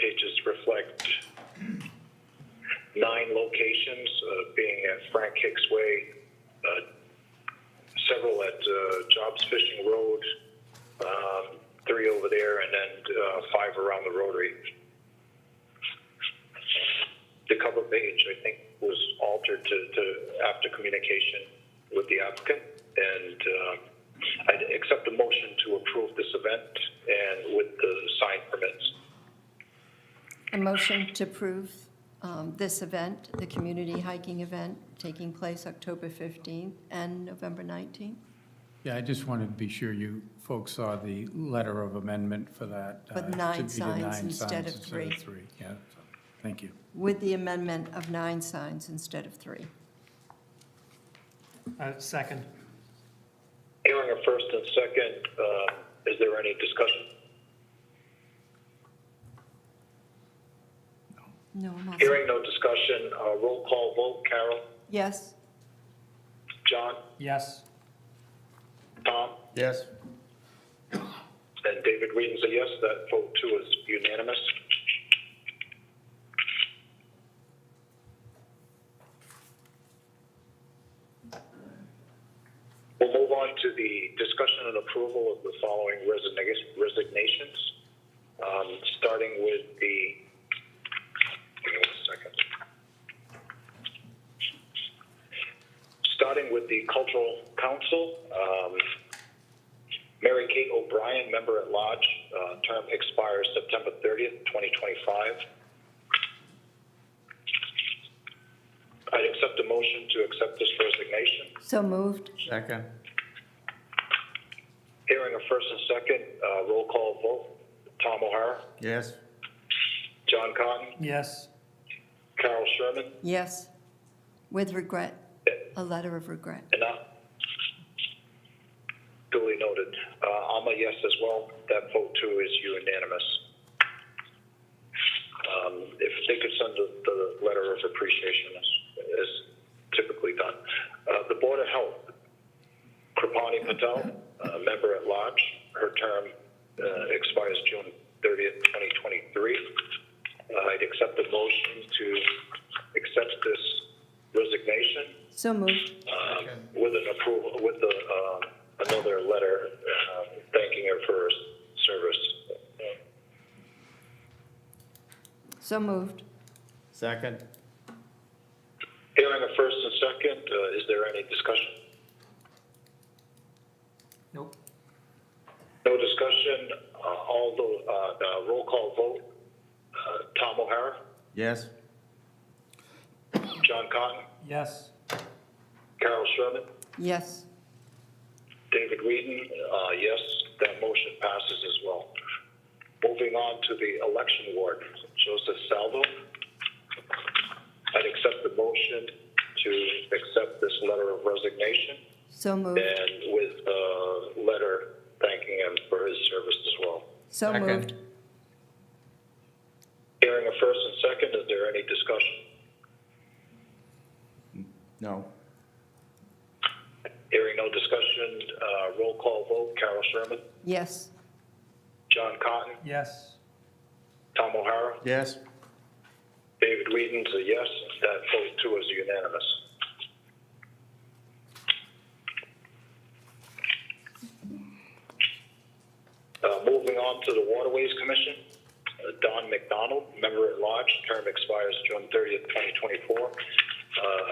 pages reflect nine locations, uh, being at Frank Hicks Way, uh, several at uh, Jobs Fishing Road, um, three over there, and then uh, five around the Rotary. The cover page, I think, was altered to, to after communication with the applicant, and um, I'd accept a motion to approve this event and with the sign permits. A motion to approve um, this event, the community hiking event, taking place October 15th and November 19th, Yeah, I just wanted to be sure you folks saw the letter of amendment for that. uh, With to nine be the signs nine instead signs of instead three. Yeah, so, thank you. with the amendment of nine signs instead of three. Uh, Second. Hearing a first and second, um, is there any discussion? No, I'm all set. Hearing no discussion, uh, roll call vote, Carol, Yes, John, Yes. Tom, Yes. and David Whedon's a yes, that vote too is unanimous. We'll move on to the discussion and approval of the following resigna- resignations, um, starting with the, give me one second. Starting with the Cultural Council, um, Mary Kate O'Brien, member at large, uh, term expires September 30th, 2025. I'd accept a motion to accept this resignation. so moved. Second. Hearing a first and second, uh, roll call vote. Tom O'Hara, Yes. John Cotton, Yes. Carol Sherman, Yes, with regret, a letter of regret. and I. Duly noted. Uh, I'm a yes as well. That vote too is unanimous. Um, if they could send the, the letter of appreciation as, as typically done. Uh, the Board of Health, Kripani Patel, uh, member at large, her term uh, expires June 30th, 2023. Uh, I'd accept the motion to accept this resignation So moved. um, with an approval, with the, um, another letter um, thanking her for her service. So moved. Second. Hearing a first and second, uh, is there any discussion? Nope. No discussion, uh, although, uh, uh, roll call vote, uh, Tom O'Hara, Yes. John Cotton, Yes. Carol Sherman, Yes, David Whedon, uh, yes, that motion passes as well. Moving on to the election ward, Joseph Salvo. I'd accept the motion to accept this letter of resignation so moved. and with a letter thanking him for his service as well. So Second. moved. Hearing a first and second, is there any discussion? No. Hearing no discussion, uh, roll call vote, Carol Sherman, Yes, John Cotton, Yes. Tom O'Hara, Yes. David Whedon's a yes. That vote too is unanimous. Uh, moving on to the Waterways Commission, uh, Don McDonald, member at large, term expires June 30th, 2024. Uh,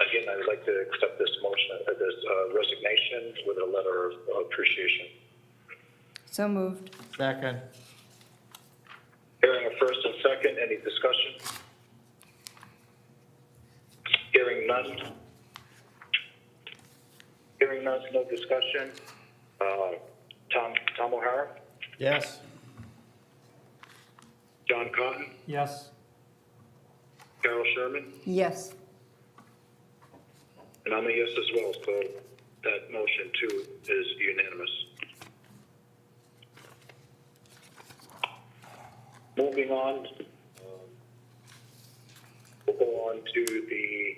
again, I'd like to accept this motion, uh, this uh, resignation with a letter of appreciation. so moved. Second. Hearing a first and second, any discussion? Hearing none. Hearing none, no discussion. Uh, Tom, Tom O'Hara, Yes. John Cotton, Yes. Carol Sherman, Yes, and I'm a yes as well, so that motion too is unanimous. Moving on, um, we'll go on to the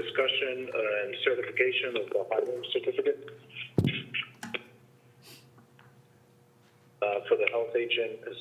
discussion and certification of the hiring certificate uh, for the health agent